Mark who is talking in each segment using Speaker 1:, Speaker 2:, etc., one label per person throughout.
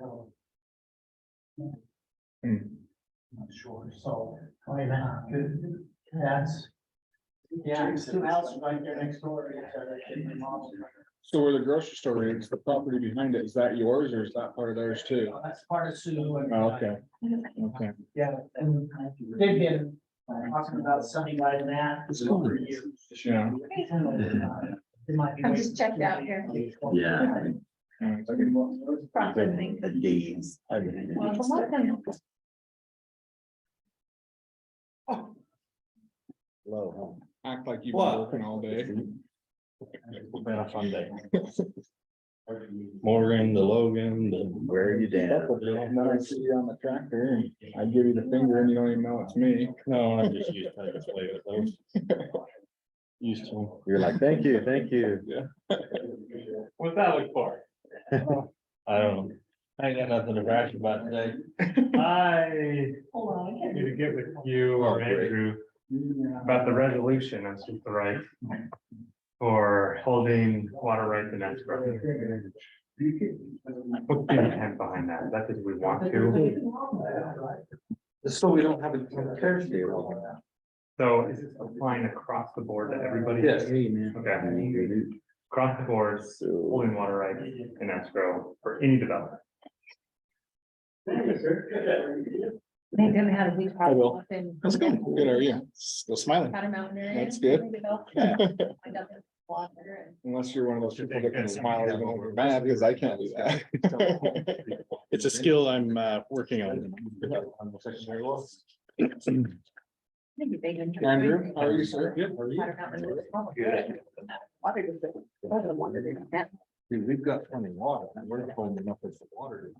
Speaker 1: will,
Speaker 2: Hmm.
Speaker 1: I'm not sure, so, I mean, uh, good, that's. Yeah, it's two houses right there next door, yeah, so they should be modeled.
Speaker 2: So where the grocery store is, the property behind it, is that yours or is that part of theirs too?
Speaker 1: That's part of Sue and.
Speaker 2: Oh, Okay, okay.
Speaker 1: Yeah, and they've been talking about something like that for years.
Speaker 2: Yeah.
Speaker 3: I'm just checked out here.
Speaker 4: Yeah.
Speaker 3: Processing.
Speaker 4: The days. everything.
Speaker 3: Well, for one thing,
Speaker 4: Low.
Speaker 2: Act like you've been
Speaker 4: What?
Speaker 2: working all
Speaker 4: huh?
Speaker 2: day.
Speaker 4: Been a fun day. Morgan, the Logan, the. Where are you
Speaker 2: And then I see you on the tractor and I give you the finger and you don't even know it's me.
Speaker 4: No, I'm just used to this way with those. Used to. 'em.
Speaker 5: You're like, thank you, thank you.
Speaker 4: What's that look for? I don't know. I ain't got nothing to brag about today.
Speaker 6: I
Speaker 3: hold on, I
Speaker 6: need
Speaker 3: can't-
Speaker 6: to get with you
Speaker 4: Oh,
Speaker 6: or Andrew about the resolution as to the right for holding water rights in escrow. What's the intent behind that? Is that because we want to?
Speaker 5: So we don't have a Thursday. Yes.
Speaker 6: So is this applying across the board to everybody? Okay, across the board,
Speaker 5: So,
Speaker 6: holding water rights in escrow for any development.
Speaker 3: They didn't have a big
Speaker 2: will.
Speaker 3: problem. up in-
Speaker 2: That's good. Good, are you? Still smiling.
Speaker 3: Powder Mountain area.
Speaker 2: That's good.
Speaker 3: They developed that. I got the water and-
Speaker 2: Unless you're one of those people that can smile even when you're mad, because I can't do that.
Speaker 4: It's a skill I'm uh working on.
Speaker 3: Maybe they didn't-
Speaker 2: Andrew, how are you, sir?
Speaker 3: Powder Mountain was probably good. Water was good. Water was good. That-
Speaker 5: dude, we've got plenty of water, and we're not holding enough of the water.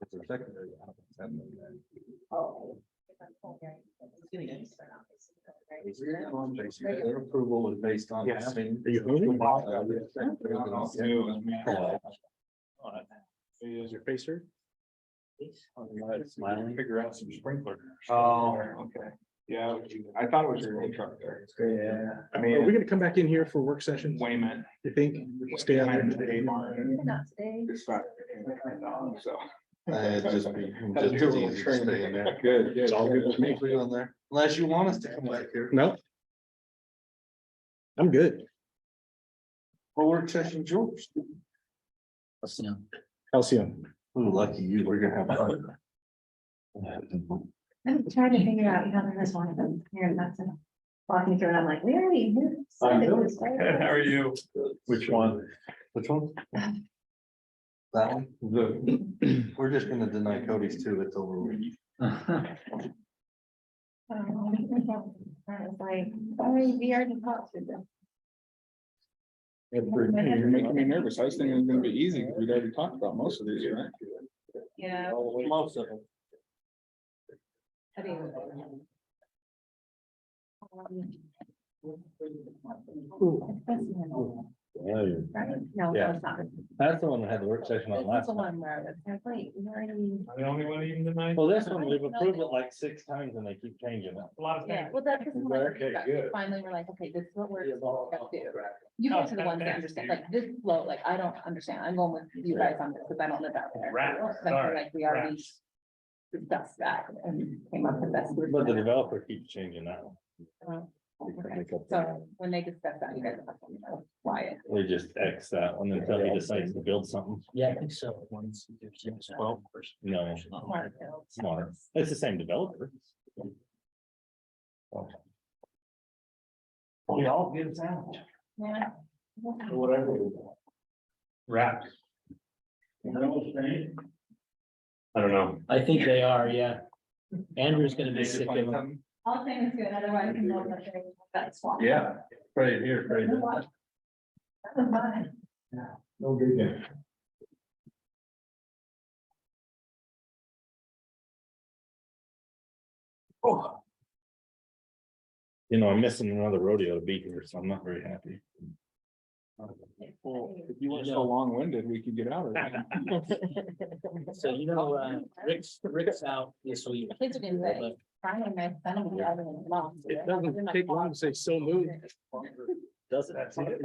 Speaker 5: It's a secondary. I don't think
Speaker 3: oh.
Speaker 5: that's in there. Their approval is based on
Speaker 2: Yes.
Speaker 5: having.
Speaker 2: Are you hungry?
Speaker 4: Is your face hurt?
Speaker 5: Smiling. Figure out some sprinkler.
Speaker 4: Oh,
Speaker 2: okay. Yeah, I thought it was your old truck there.
Speaker 5: Yeah.
Speaker 2: I
Speaker 4: Are we
Speaker 2: mean,
Speaker 4: gonna come back in here for work sessions?
Speaker 2: Wayman.
Speaker 4: You think? Stay out
Speaker 2: Kind
Speaker 4: there.
Speaker 2: of the A-Mart.
Speaker 3: Not today.
Speaker 2: It's not- so.
Speaker 5: It'd just be.
Speaker 2: Had to do a little
Speaker 5: just
Speaker 2: training.
Speaker 5: stay in there.
Speaker 2: Good, good.
Speaker 5: It's all good with me. Put it on there. Unless you want us to come back here.
Speaker 4: No. I'm good.
Speaker 5: Well, work session George.
Speaker 4: Calcium.
Speaker 5: Lucky you, we're gonna have. fun.
Speaker 3: I'm trying to figure out, you know, there's one of them here and that's it. Walking through and I'm like, where are you?
Speaker 1: I'm doing
Speaker 6: are you?
Speaker 5: Which one? Which one? That one? The, we're just gonna deny Cody's too, it's over. with.
Speaker 3: Um, I was like, sorry, we already talked to them.
Speaker 2: You're making me nervous. I was thinking it was gonna be easy, because we'd already talked about most of these, right?
Speaker 3: Yeah.
Speaker 5: Most of them.
Speaker 3: I mean, um, right? No,
Speaker 4: Yeah.
Speaker 3: that's not.
Speaker 4: That's the one that had the work session
Speaker 3: That's the one where I was like, wait, you already.
Speaker 6: Am I The only one even tonight?
Speaker 4: Well, this one, we've approved it like six times and they keep changing it.
Speaker 6: A lot of
Speaker 3: Yeah,
Speaker 6: things.
Speaker 3: well, that's. the one
Speaker 4: Okay,
Speaker 3: that
Speaker 4: good.
Speaker 3: Finally, we're like, okay, this is what we're gonna do. You guys are the ones that understand, like this flow, like I don't understand. I'm going with you guys on this because I don't live out there.
Speaker 6: Rats,
Speaker 3: But I feel
Speaker 6: sorry,
Speaker 3: like we already
Speaker 6: rats.
Speaker 3: discussed that and came up with this.
Speaker 4: But the developer keeps changing that. one.
Speaker 3: Oh, okay.
Speaker 5: Make up their-
Speaker 3: So when they discuss that, you guys have to know why it.
Speaker 4: We just X that one until he decides to build something.
Speaker 1: Yeah, I think so. Well.
Speaker 4: No,
Speaker 3: Smart.
Speaker 4: smaller. It's the same developer.
Speaker 1: We all get it out.
Speaker 3: Yeah.
Speaker 1: Whatever.
Speaker 6: Wrapped. I don't know.
Speaker 7: I think they are, yeah. Andrew's gonna be
Speaker 2: Did you
Speaker 7: sick
Speaker 2: find
Speaker 7: of them.
Speaker 2: something?
Speaker 3: All things good, otherwise you know that they- that's why.
Speaker 5: Yeah, right here, right
Speaker 3: That
Speaker 5: there.
Speaker 3: was mine.
Speaker 1: No good.
Speaker 4: You know, I'm missing another rodeo to be here, so I'm not very happy.
Speaker 2: Well, if you weren't so long-winded, we could get out of it.
Speaker 7: So you know, uh, Rick's, Rick's out this week.
Speaker 3: Kids are gonna say, finally, my son will be driving a mom.
Speaker 4: It doesn't take long to say so moved.
Speaker 7: Does it?